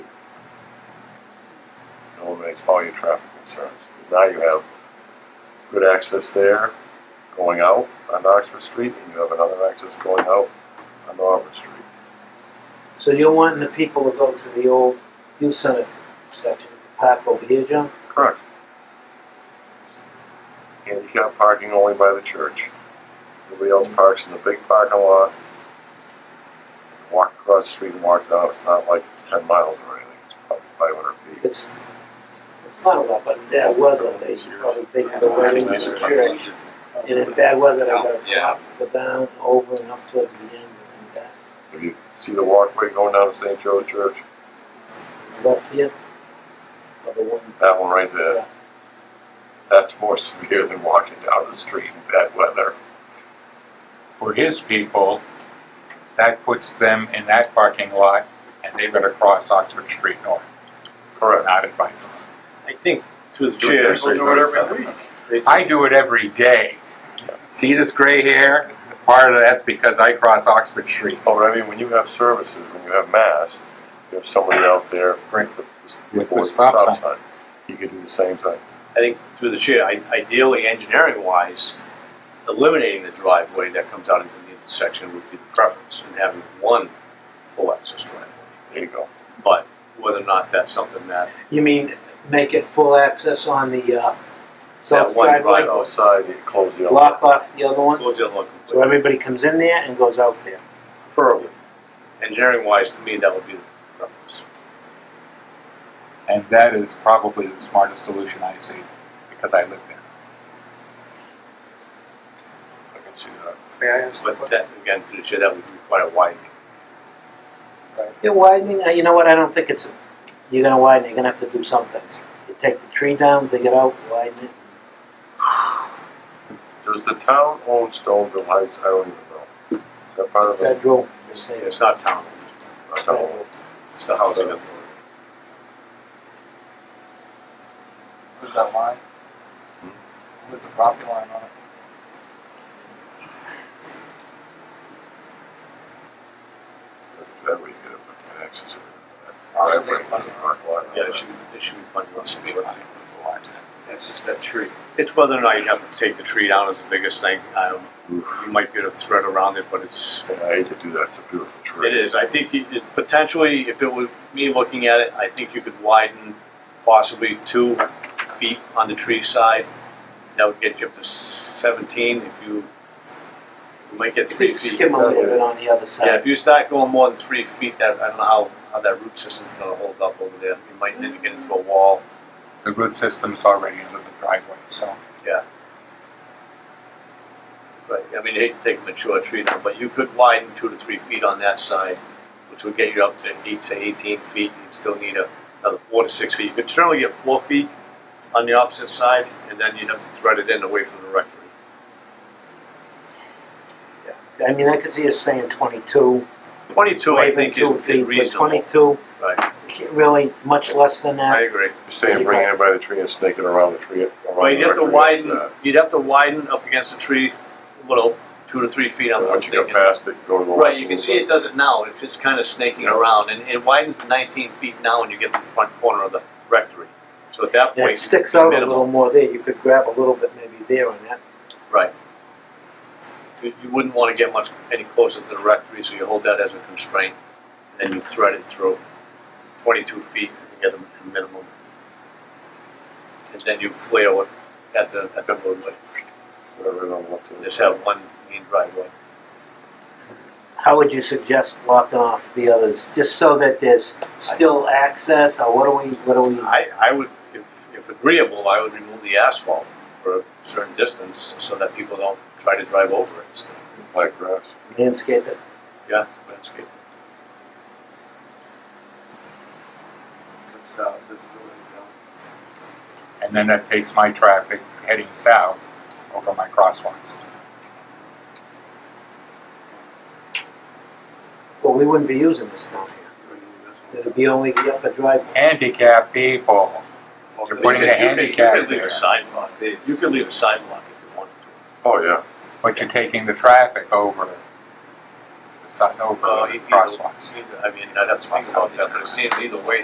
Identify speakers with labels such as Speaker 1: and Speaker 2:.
Speaker 1: eliminates all your traffic concerns. Now you have good access there going out on Oxford Street, and you have another access going out on Auburn Street.
Speaker 2: So you're wanting the people to go to the old youth center section of the park over here, John?
Speaker 1: Correct. Handicap parking only by the church. Everybody else parks in the big parking lot. Walk across the street and walk down, it's not like it's ten miles or anything, it's probably five hundred feet.
Speaker 2: It's, it's not a lot, but in bad weather, they should probably take the way to the church. And in bad weather, they gotta
Speaker 3: Yeah.
Speaker 2: drop, go down, over and up towards the end and back.
Speaker 1: If you see the walkway going down to St. Joe's Church,
Speaker 2: Left here, or the one,
Speaker 1: that one right there, that's more severe than walking down the street in bad weather.
Speaker 4: for his people, that puts them in that parking lot, and they've got to cross Oxford Street North.
Speaker 1: Correct.
Speaker 4: Not advisable.
Speaker 5: I think through the
Speaker 3: Do it
Speaker 5: chair.
Speaker 3: every- do it every week.
Speaker 4: I do it every day. See this gray hair? Part of that's because I cross Oxford Street.
Speaker 1: Oh, but I mean, when you have services, when you have mass, you have somebody out there.
Speaker 4: Right.
Speaker 1: with the-
Speaker 4: With the
Speaker 1: with
Speaker 4: stop sign.
Speaker 1: You could do the same thing.
Speaker 5: I think through the chair, I- ideally, engineering-wise, eliminating the driveway that comes out into the intersection would be the preference, and having one full access driveway.
Speaker 1: There you go.
Speaker 5: But whether or not that's something that,
Speaker 2: you mean, make it full access on the, uh, south
Speaker 5: one
Speaker 2: driveway?
Speaker 5: Right.
Speaker 1: Outside, you close the.
Speaker 2: Block off the other one,
Speaker 5: close the other one
Speaker 2: so
Speaker 5: completely,
Speaker 2: everybody comes in there and goes out there.
Speaker 5: preferably. Engineering-wise, to me, that would be the preference.
Speaker 4: And that is probably the smartest solution I see, because I live there.
Speaker 1: I can see that.
Speaker 5: But that, again, through the chair, that would require widening.
Speaker 2: You're widening, uh, you know what, I don't think it's, you're gonna widen, you're gonna have to do some things. You take the tree down, dig it out, widen it.
Speaker 1: Does the town own Stoneville Heights? I don't even know. Is that part of the?
Speaker 2: federal
Speaker 5: It's not town,
Speaker 1: I don't know.
Speaker 5: it's the housing authority.
Speaker 3: Who's that line?
Speaker 4: Hmm?
Speaker 3: Who's the property line on it?
Speaker 1: That we did, but the access.
Speaker 5: Yeah, it should, be- it should be funded on some way.
Speaker 3: That's just that tree.
Speaker 5: It's whether or not you have to take the tree down is the biggest thing. Um,
Speaker 1: Oof.
Speaker 5: you might get a thread around it, but it's,
Speaker 1: And I hate to do that. It's a beautiful tree.
Speaker 5: it is. I think it, it- potentially, if it was me looking at it, I think you could widen possibly two feet on the tree side. That would get you up to s- seventeen if you, you might get three feet.
Speaker 2: Skim a little bit on the other
Speaker 5: Yeah,
Speaker 2: side.
Speaker 5: if you start going more than three feet, that, I don't know how, how that root system's gonna hold up over there. You might need to get into a wall.
Speaker 4: The root system's already under the driveway, so.
Speaker 5: Right, I mean, you hate to take a mature tree down, but you could widen two to three feet on that side, which would get you up to eight to eighteen feet, and you'd still need a, another four to six feet. You could certainly get four feet on the opposite side, and then you'd have to thread it in away from the rectory.
Speaker 2: I mean, I could see us saying twenty-two,
Speaker 5: Twenty-two, I
Speaker 2: even
Speaker 5: think,
Speaker 2: two
Speaker 5: is,
Speaker 2: feet,
Speaker 5: is
Speaker 2: but
Speaker 5: reasonable.
Speaker 2: twenty-two,
Speaker 5: Right,
Speaker 2: can't really much less than
Speaker 5: I
Speaker 2: that.
Speaker 5: agree.
Speaker 1: You're saying bring it in by the tree and snake it around the tree. around
Speaker 5: Well, you'd
Speaker 1: the uh,
Speaker 5: have to
Speaker 1: tree.
Speaker 5: widen,
Speaker 1: Yeah.
Speaker 5: you'd have to widen up against the tree, a little, two to three feet on what
Speaker 1: Once
Speaker 5: you
Speaker 1: you go past it, go to the.
Speaker 5: Right,
Speaker 1: left
Speaker 5: you
Speaker 1: a
Speaker 5: can
Speaker 1: little
Speaker 5: see
Speaker 1: bit.
Speaker 5: it does it now, it's just kind of snaking
Speaker 1: Yeah.
Speaker 5: around, and it widens to nineteen feet now when you get to the front corner of the rectory. So at that
Speaker 2: And
Speaker 5: point.
Speaker 2: it sticks out a
Speaker 5: minimal.
Speaker 2: little more there, you could grab a little bit maybe there on that.
Speaker 5: Right. You you wouldn't want to get much, any closer to the rectory, so you hold that as a constraint, and then you thread it through twenty-two feet, you get a minimum. And then you flare it at the, at the roadway,
Speaker 1: Whatever, on the left of the
Speaker 5: just
Speaker 1: side.
Speaker 5: have one main driveway.
Speaker 2: How would you suggest blocking off the others, just so that there's still access, or what do we, what do we?
Speaker 5: I, I would, if, if agreeable, I would remove the asphalt for a certain distance so that people don't try to drive over it.
Speaker 1: Like grass.
Speaker 2: landscape it.
Speaker 5: Yeah, landscape.
Speaker 3: It's, uh, visibility down.
Speaker 4: And then that takes my traffic heading south over my crosswalks.
Speaker 2: Well, we wouldn't be using this down here. It'd be only the upper driveway.
Speaker 4: Handicap people.
Speaker 3: Okay.
Speaker 4: You're putting a
Speaker 5: You could- you could-
Speaker 4: handicap
Speaker 5: You could leave
Speaker 4: there.
Speaker 5: a sidewalk, you could leave a sidewalk if you wanted to.
Speaker 1: Oh, yeah.
Speaker 4: But you're taking the traffic over the side, over
Speaker 5: Well,
Speaker 4: the
Speaker 5: you- you-
Speaker 4: Uh, crosswalks.
Speaker 5: Either- I mean, I'd have to think about that, but it seems either way,